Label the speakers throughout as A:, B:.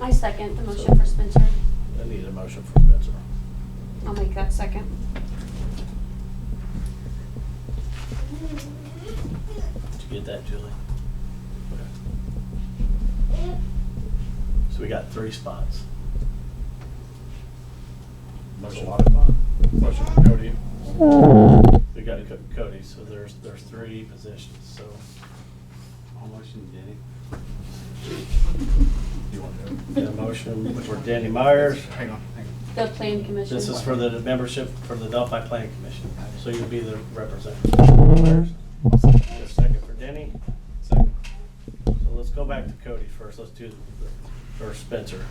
A: I second the motion for Spencer.
B: I need a motion for Spencer.
A: I'll make that second.
B: Did you get that, Julie? Okay. So we got three spots. Motion. Motion for Cody. We got Co- Cody, so there's, there's three positions, so.
C: I'll motion Denny.
B: Got a motion for Danny Myers.
C: Hang on, hang on.
A: The plan commission.
B: This is for the membership for the Delphi Planning Commission, so you'll be the representative. Got a Second for Denny.
C: Second.
B: So let's go back to Cody first. Let's do, the- or Spencer.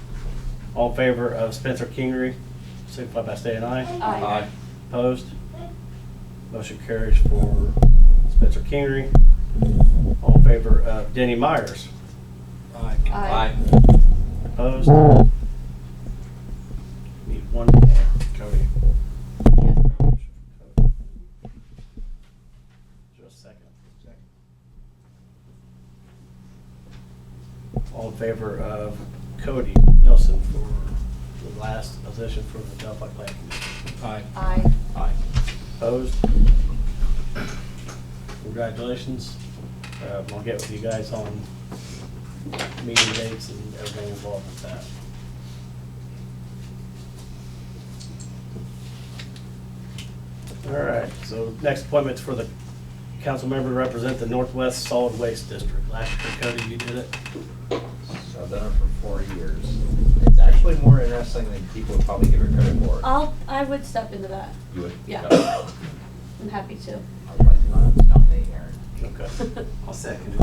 B: All in favor of Spencer Kingery, signify by saying aye.
A: Aye.
B: Opposed? Motion carries for Spencer Kingery. All in favor of Denny Myers.
C: Aye.
A: Aye.
B: Opposed? Need one more. Cody. Just a second. All in favor of Cody Nelson for the last position for the Delphi Planning Commission?
C: Aye.
A: Aye.
B: Aye. Opposed? Congratulations. Uh, I'll get with you guys on meeting dates and everything involved with that. All right, so next appointment's for the council member to represent the Northwest Solid Waste District. Last year, Cody, you did it.
D: So I've done it for four years. It's actually more interesting than people would probably give it credit for.
A: I'll, I would step into that.
D: You would?
A: Uh, Yeah.
D: No. I
A: I'm happy to.
D: was like, "Oh, it's not me, Aaron."
B: Okay.
C: I'll second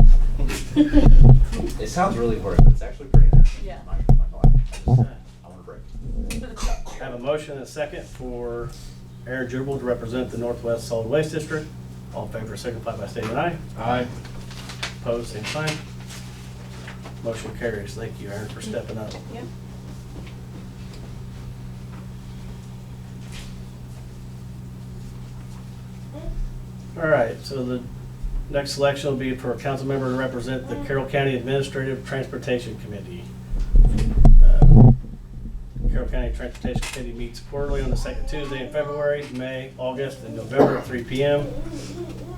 C: it.
D: It sounds really hard, but it's actually pretty interesting.
A: Yeah.
D: I'm not gonna lie. I just- I want a break.
B: Have a motion and a second for Aaron Jubal to represent the Northwest Solid Waste District. All in favor signify by stating aye.
C: Aye.
B: Opposed, same sign. Motion carries. Thank you, Aaron, for stepping up.
A: Yep.
B: All right, so the next selection will be for a council member to represent the Carroll County Administrative Transportation Committee. Uh, Carroll County Transportation Committee meets quarterly on the second Tuesday in February, May, August, and November at 3 PM.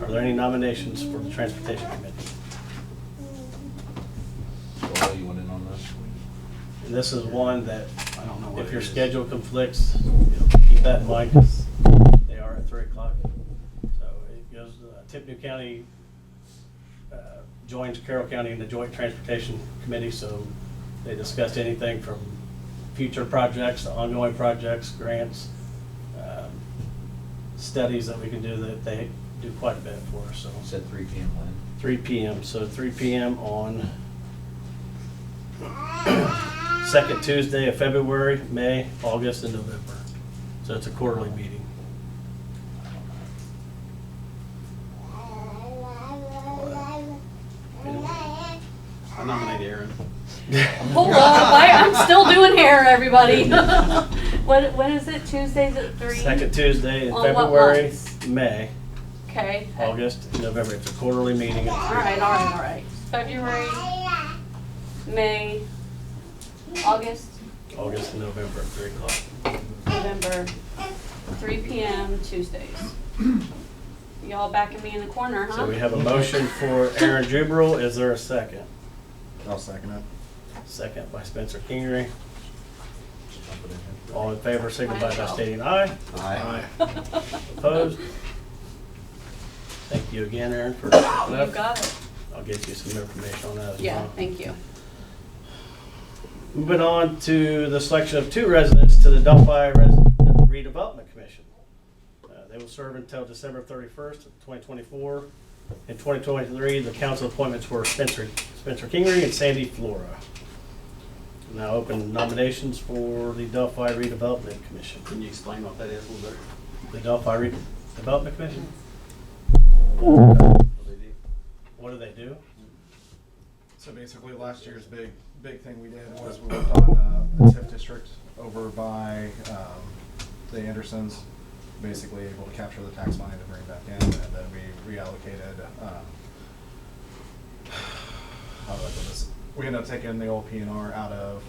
B: Are there any nominations for the Transportation Committee?
D: Joel, you went in on this?
B: And this is one that,
C: I don't know what
B: if your
C: it is.
B: schedule conflicts, you know, keep that in mind, 'cause they are at three o'clock. So it goes, uh, Tippecanoe County uh, joins Carroll County in the Joint Transportation Committee, so they discussed anything from future projects, to ongoing projects, grants, um, studies that we can do, that they do quite a bit for us, so.
D: You said three PM, Lynn.
B: 3 PM, so 3 PM on second Tuesday of February, May, August, and November. So it's a quarterly meeting.
C: I nominate Aaron.
A: Hold up, I, I'm still doing hair, everybody. What, when is it? Tuesdays at three?
B: Second Tuesday in
A: On what
B: February,
A: months?
B: May,
A: Okay.
B: August, and November. It's a quarterly meeting.
A: All right, all right, all right. February, May, August,
B: August and November at 3 o'clock.
A: November, three PM Tuesdays. Y'all backing me in the corner, huh?
B: So we have a motion for Aaron Jubril. Is there a second?
C: I'll second it.
B: Second by Spencer Kingery.
D: Just jump it in here.
B: All in favor, signify by stating aye.
C: Aye.
B: Opposed? Thank you again, Aaron, for stepping
A: You
B: up.
A: got it.
B: I'll get you some information on that as
A: Yeah,
B: well.
A: thank you.
B: Moving on to the selection of two residents to the Delphi Res- Redevelopment Commission. Uh, They will serve until December 31st, of 2024. In 2023, the council appointments were Spencer Spencer Kingery and Sandy Flora. Now open nominations for the Delphi Redevelopment Commission.
C: Can you explain what that is a little bit?
B: The Delphi Redevelopment Commission?
C: What they do?
B: What do they do?
E: So basically, last year's big, big thing we did was we worked on uh, a TIF district over by um, the Andersons, basically able to capture the tax money to bring back in, and then we reallocated, um, how do I put this? We ended up taking the old P and R out of